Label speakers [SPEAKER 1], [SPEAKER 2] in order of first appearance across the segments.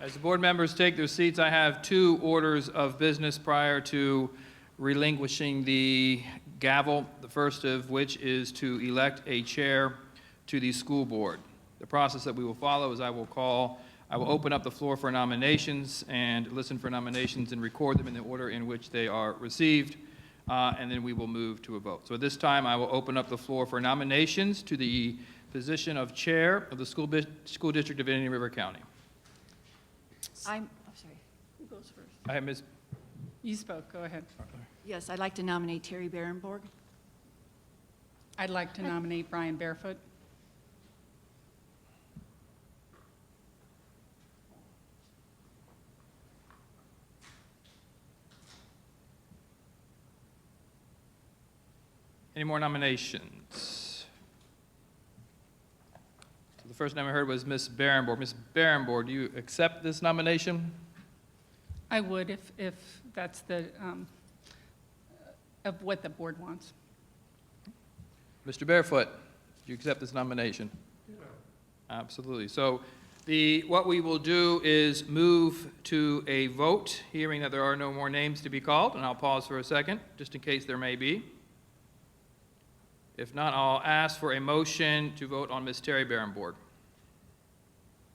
[SPEAKER 1] As the board members take their seats, I have two orders of business prior to relinquishing the gavel, the first of which is to elect a chair to the school board. The process that we will follow is I will call, I will open up the floor for nominations and listen for nominations and record them in the order in which they are received, uh, and then we will move to a vote. So at this time, I will open up the floor for nominations to the position of chair of the school, bus- school district of Indian River County.
[SPEAKER 2] I'm, oh, sorry. Who goes first?
[SPEAKER 1] I have Ms.
[SPEAKER 3] You spoke, go ahead.
[SPEAKER 2] Yes, I'd like to nominate Terry Berenborg.
[SPEAKER 3] I'd like to nominate Brian Barefoot.
[SPEAKER 1] Any more nominations? So the first name I heard was Ms. Barrenborn. Ms. Barrenborn, do you accept this nomination?
[SPEAKER 3] I would if, if that's the, um, of what the board wants.
[SPEAKER 1] Mr. Barefoot, do you accept this nomination? Absolutely. So the, what we will do is move to a vote, hearing that there are no more names to be called, and I'll pause for a second, just in case there may be. If not, I'll ask for a motion to vote on Ms. Terry Barrenborn.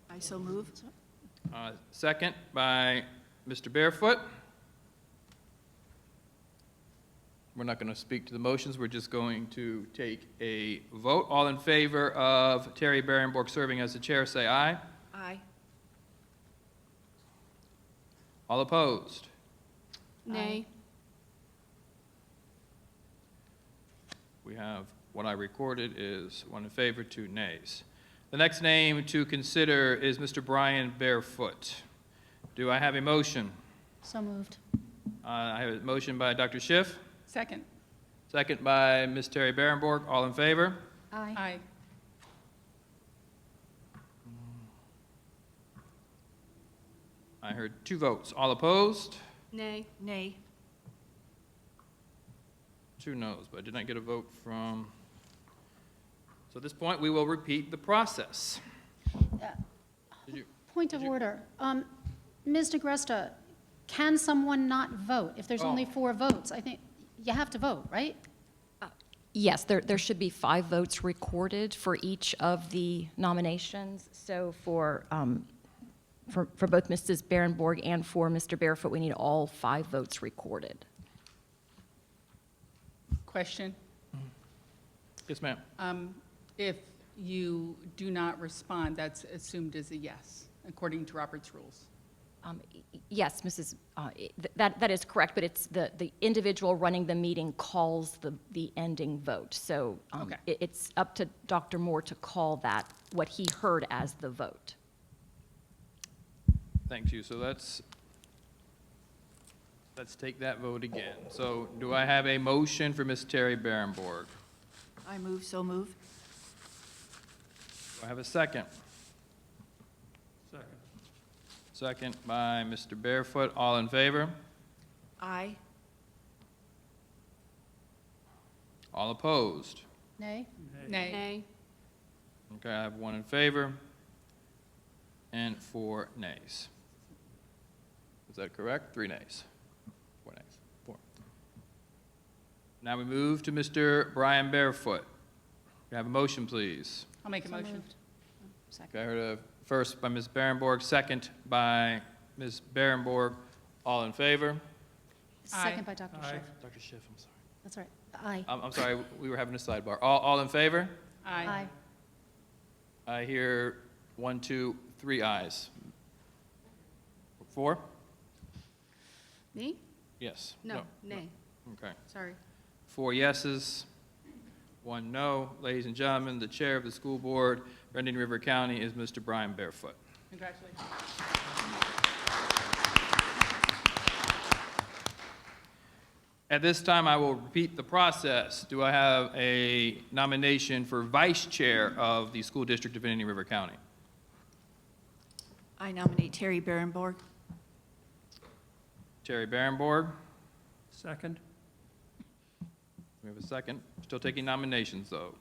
[SPEAKER 2] I so move.
[SPEAKER 1] Uh, Second by Mr. Barefoot. We're not going to speak to the motions, we're just going to take a vote. All in favor of Terry Barrenborg serving as the chair, say aye.
[SPEAKER 2] Aye.
[SPEAKER 1] All opposed?
[SPEAKER 2] Nay.
[SPEAKER 1] We have, what I recorded is one in favor, two nays. The next name to consider is Mr. Brian Barefoot. Do I have a motion?
[SPEAKER 4] So moved.
[SPEAKER 1] Uh, I have a motion by Dr. Schiff,
[SPEAKER 3] Second,
[SPEAKER 1] second by Ms. Terry Barrenborg. All in favor?
[SPEAKER 4] Aye.
[SPEAKER 3] aye.
[SPEAKER 1] I heard two votes. All opposed?
[SPEAKER 2] Nay. Nay.
[SPEAKER 1] Two noes, but I did not get a vote from, so at this point, we will repeat the process. Did you-
[SPEAKER 4] Point of
[SPEAKER 1] Did you-
[SPEAKER 4] order. Um, Ms. DeGresta, can someone not vote if there's
[SPEAKER 1] Oh.
[SPEAKER 4] only four votes? I think you have to vote, right?
[SPEAKER 5] Yes, there, there should be five votes recorded for each of the nominations. So for, um, for, for both Mrs. Berenborg and for Mr. Barefoot, we need all five votes recorded.
[SPEAKER 3] Question,
[SPEAKER 1] Yes, ma'am.
[SPEAKER 3] um, if you do not respond, that's assumed as a yes, according to Robert's rules.
[SPEAKER 5] Um, y- y- Yes, Mrs., uh, th- that, that is correct, but it's the, the individual running the meeting calls the, the ending vote. So um,
[SPEAKER 3] Okay.
[SPEAKER 5] it- it's up to Dr. Moore to call that, what he heard as the vote.
[SPEAKER 1] Thank you. So let's, let's take that vote again. So do I have a motion for Ms. Terry Barrenborg?
[SPEAKER 2] I move, so move.
[SPEAKER 1] Do I have a second? Second. Second by Mr. Barefoot. All in favor?
[SPEAKER 2] Aye.
[SPEAKER 1] All opposed?
[SPEAKER 4] Nay?
[SPEAKER 3] Nay,
[SPEAKER 2] Nay.
[SPEAKER 1] Okay, I have one in favor and four nays. Is that correct? Three nays. Four nays. Four. Now we move to Mr. Brian Barefoot. We have a motion, please.
[SPEAKER 3] I'll make a
[SPEAKER 4] So
[SPEAKER 3] motion.
[SPEAKER 4] moved.
[SPEAKER 1] Okay, I heard a first by Ms. Berenborg, second by Ms. Berenborg. All in favor?
[SPEAKER 3] Aye.
[SPEAKER 4] Second by Dr. Schiff.
[SPEAKER 1] Dr. Schiff, I'm sorry.
[SPEAKER 4] That's right. Aye.
[SPEAKER 1] I'm, I'm sorry, we were having a sidebar. All, all in favor?
[SPEAKER 3] Aye.
[SPEAKER 1] I hear one, two, three ayes. Four?
[SPEAKER 2] Me?
[SPEAKER 1] Yes.
[SPEAKER 2] No, nay.
[SPEAKER 1] Okay.
[SPEAKER 2] Sorry.
[SPEAKER 1] Four yeses, one no. Ladies and gentlemen, the chair of the school board for Indian River County is Mr. Brian Barefoot.
[SPEAKER 3] Congratulations.
[SPEAKER 1] At this time, I will repeat the process. Do I have a nomination for vice chair of the school district of Indian River County?
[SPEAKER 2] I nominate Terry Berenborg.
[SPEAKER 1] Terry Barrenborg,
[SPEAKER 6] Second.
[SPEAKER 1] we have a second. Still taking nominations, though.